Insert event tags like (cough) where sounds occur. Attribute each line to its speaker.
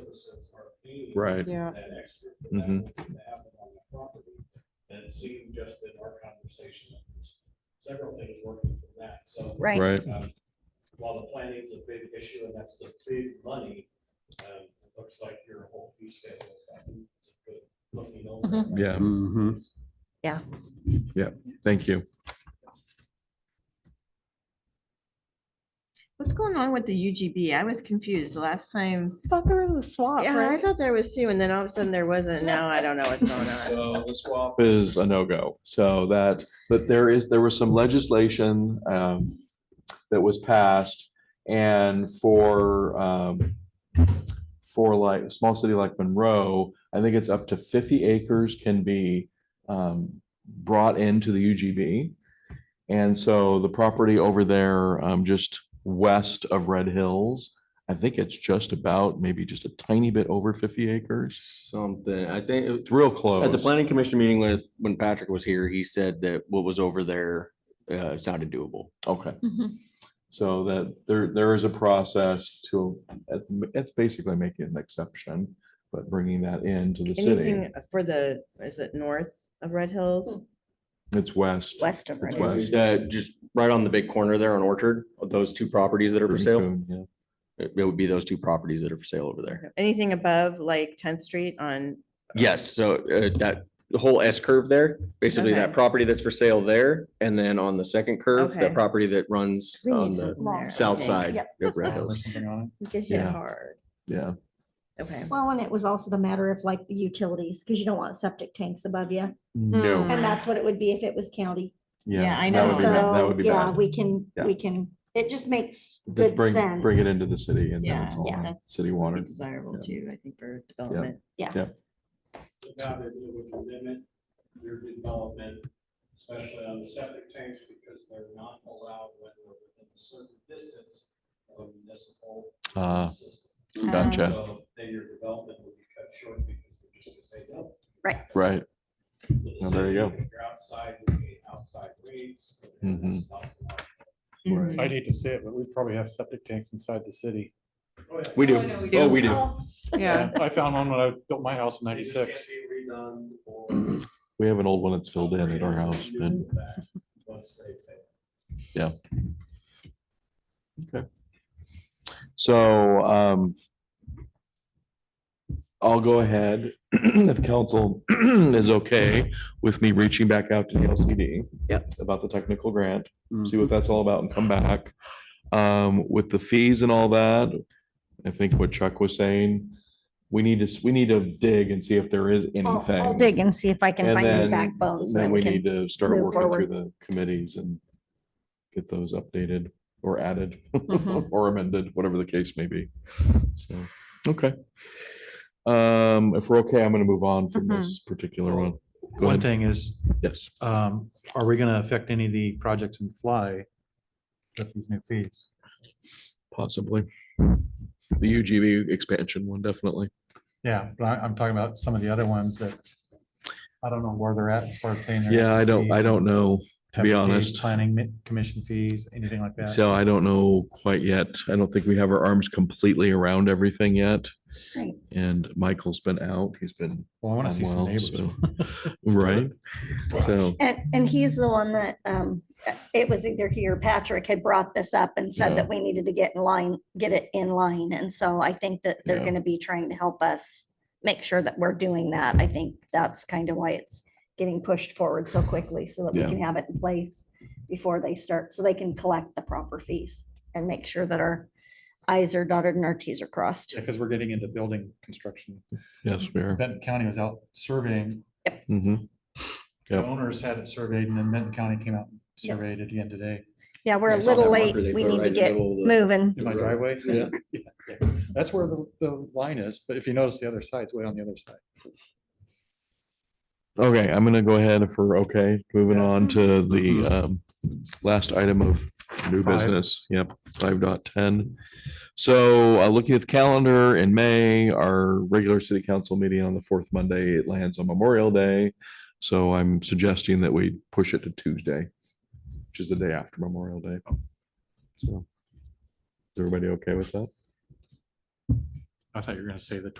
Speaker 1: citizens are paying.
Speaker 2: Right.
Speaker 3: Yeah,
Speaker 1: That extra. for that
Speaker 2: Mhm.
Speaker 1: one thing to happen on the property. And seeing just in our conversation, there's several things working from that, so.
Speaker 4: Right.
Speaker 2: Right.
Speaker 1: Um, While the planning is a big issue and that's the big money, um, it looks like your whole fee schedule. I think it's a good Looking over.
Speaker 2: Mhm. Yeah.
Speaker 5: Mhm.
Speaker 2: Thank you.
Speaker 6: What's going on with the UGB? I was confused the last time.
Speaker 3: I thought there was a swap,
Speaker 6: Yeah, I
Speaker 3: right?
Speaker 6: thought there was two, and then all of a sudden there wasn't. Now I don't know what's going on.
Speaker 1: So the swap
Speaker 2: Is a no-go. So that, but there is, there was some legislation um, that was passed and for um, for like, a small city like Monroe, I think it's up to fifty acres can be um, brought into the UGB. And so the property over there, um, just west of Red Hills, I think it's just about, maybe just a tiny bit over fifty acres.
Speaker 5: Something, I think, it-
Speaker 2: It's real close.
Speaker 5: at the planning commission meeting with, when Patrick was here, he said that what was over there, uh, sounded doable.
Speaker 2: Okay.
Speaker 4: Mhm.
Speaker 2: So that there, there is a process to, it's basically making an exception, but bringing that into the (laughs) city.
Speaker 6: Anything for the, is it north of Red Hills?
Speaker 2: It's west.
Speaker 4: West of
Speaker 2: It's
Speaker 4: Red
Speaker 2: west.
Speaker 4: Hills.
Speaker 5: Uh, just right on the big corner there on Orchard, of those two properties that are for sale,
Speaker 2: Coon, yeah.
Speaker 5: it it would be those two properties that are for sale over
Speaker 3: Hmm.
Speaker 5: there.
Speaker 6: Anything above like Tenth Street on,
Speaker 5: Yes, so uh, that, the whole S curve there, basically that
Speaker 6: Okay.
Speaker 5: property that's for sale there, and then on the second curve,
Speaker 6: Okay.
Speaker 5: that property that runs
Speaker 4: We need
Speaker 5: on
Speaker 4: some
Speaker 5: the
Speaker 6: there, I
Speaker 4: long-
Speaker 5: south
Speaker 6: think.
Speaker 5: side of Red
Speaker 7: or
Speaker 5: Hills.
Speaker 7: something on
Speaker 6: you get hit
Speaker 2: Yeah.
Speaker 6: hard?
Speaker 2: Yeah,
Speaker 6: Okay.
Speaker 4: Well, and it was also the matter of like the utilities, because you don't want septic tanks above you.
Speaker 5: Mm.
Speaker 2: no,
Speaker 4: And that's what it would be if it was county.
Speaker 2: yeah.
Speaker 6: Yeah, I
Speaker 2: that
Speaker 6: know.
Speaker 2: would be bad, That
Speaker 4: So,
Speaker 2: would be
Speaker 4: yeah,
Speaker 2: bad.
Speaker 4: we can,
Speaker 2: Yeah.
Speaker 4: we can, it just makes
Speaker 2: Just
Speaker 4: good
Speaker 2: bring,
Speaker 4: sense.
Speaker 2: bring it into the city and then
Speaker 6: Yeah,
Speaker 2: it's all
Speaker 6: yeah,
Speaker 2: on
Speaker 6: that's
Speaker 2: city water.
Speaker 6: Desirable
Speaker 2: Yeah.
Speaker 6: too, I think, for development.
Speaker 1: Without it, it would limit your development, especially on the septic tanks, because they're not allowed when they're within a certain distance of a municipal
Speaker 2: Uh,
Speaker 1: system.
Speaker 2: gotcha.
Speaker 1: So then your development would be cut short because they're just gonna say, no.
Speaker 4: Right.
Speaker 2: Right,
Speaker 1: The
Speaker 2: Well, there you go.
Speaker 1: decision If you're outside, you pay outside rates. and
Speaker 2: Mhm.
Speaker 1: stuff like that.
Speaker 6: Mhm.
Speaker 7: I'd hate to say it, but we probably have septic tanks inside the city.
Speaker 1: Oh, yeah.
Speaker 5: We do, oh, we do.
Speaker 3: Yeah,
Speaker 7: I found one when I built my house in
Speaker 1: They just can't
Speaker 7: ninety-six.
Speaker 1: be redone
Speaker 2: (clears throat)
Speaker 1: or
Speaker 2: we have an old one that's filled in at our house,
Speaker 1: upgraded
Speaker 2: but
Speaker 1: and back Once they pay.
Speaker 2: So um. I'll go ahead (clears throat) if council (clears throat) is okay with me reaching back out to the LCD. About the technical grant, see what that's all about and come back. Um, with the fees and all that, I think what Chuck was saying, we need to, s- we need to dig and see if there is
Speaker 4: I'll-
Speaker 2: anything.
Speaker 4: I'll dig and see if I can
Speaker 2: And
Speaker 4: find any
Speaker 2: then-
Speaker 4: backbones.
Speaker 2: Then we
Speaker 4: can-
Speaker 2: need to start
Speaker 4: move
Speaker 2: working through the committees and get those updated or added (laughs) or amended, whatever the case may be. So, okay. Um, if we're okay, I'm gonna move on from this particular one. Go
Speaker 7: One
Speaker 2: ahead.
Speaker 7: thing is,
Speaker 2: Yes.
Speaker 7: um, are we gonna affect any of the projects in Fly with these new fees?
Speaker 2: Possibly. The UGB expansion one, definitely.
Speaker 7: Yeah, but I, I'm talking about some of the other ones that I don't know where they're at as far as paying. their
Speaker 2: Yeah, I
Speaker 7: SEC,
Speaker 2: don't, I don't know. to be
Speaker 7: temp fees,
Speaker 2: honest.
Speaker 7: Planning mi- commission fees, anything like that.
Speaker 2: So I don't know quite yet. I don't think we have our arms completely around everything yet.
Speaker 4: Right.
Speaker 2: And Michael's been out. He's been
Speaker 7: Well, I want to see some
Speaker 2: Oh, Well,
Speaker 7: neighbors. (laughs)
Speaker 2: so- right. So,
Speaker 4: And, and he's the one that, um, it was either he or Patrick had brought this up and
Speaker 2: Yeah.
Speaker 4: said that we needed to get in line, get it in line. And so I think that they're
Speaker 2: Yeah.
Speaker 4: gonna be trying to help us make sure that we're doing that. I think that's kind of why it's getting pushed forward so quickly so that we
Speaker 2: Yeah.
Speaker 4: can have it in place before they start, so they can collect the proper fees and make sure that our i's are dotted and our t's are crossed.
Speaker 7: Because we're getting into building construction.
Speaker 2: yes, we are.
Speaker 7: Benton County was out surveying.
Speaker 2: Mhm.
Speaker 7: The
Speaker 2: Yep.
Speaker 7: Owners had it surveyed and then Benton County came out and
Speaker 4: Yep.
Speaker 7: surveyed it again today.
Speaker 4: Yeah, we're a
Speaker 5: I saw
Speaker 4: little
Speaker 5: that
Speaker 4: late.
Speaker 5: marker they
Speaker 4: We
Speaker 5: put
Speaker 4: need to
Speaker 5: right in the
Speaker 4: get
Speaker 5: middle of the-
Speaker 4: moving.
Speaker 7: In my
Speaker 5: Right.
Speaker 7: driveway.
Speaker 5: Yeah.
Speaker 7: (laughs) Yeah, yeah. That's where the, the line is, but if you notice the other side's way on the other side.
Speaker 2: Okay, I'm gonna go ahead if we're okay, moving on to the um last item of new
Speaker 7: Five.
Speaker 2: business. Yep, five dot ten. So uh looking at the calendar in May, our regular city council meeting on the fourth Monday, it lands on Memorial Day. So I'm suggesting that we push it to Tuesday, which is the day after Memorial Day. So. Is everybody okay with that?
Speaker 7: I thought you were gonna say the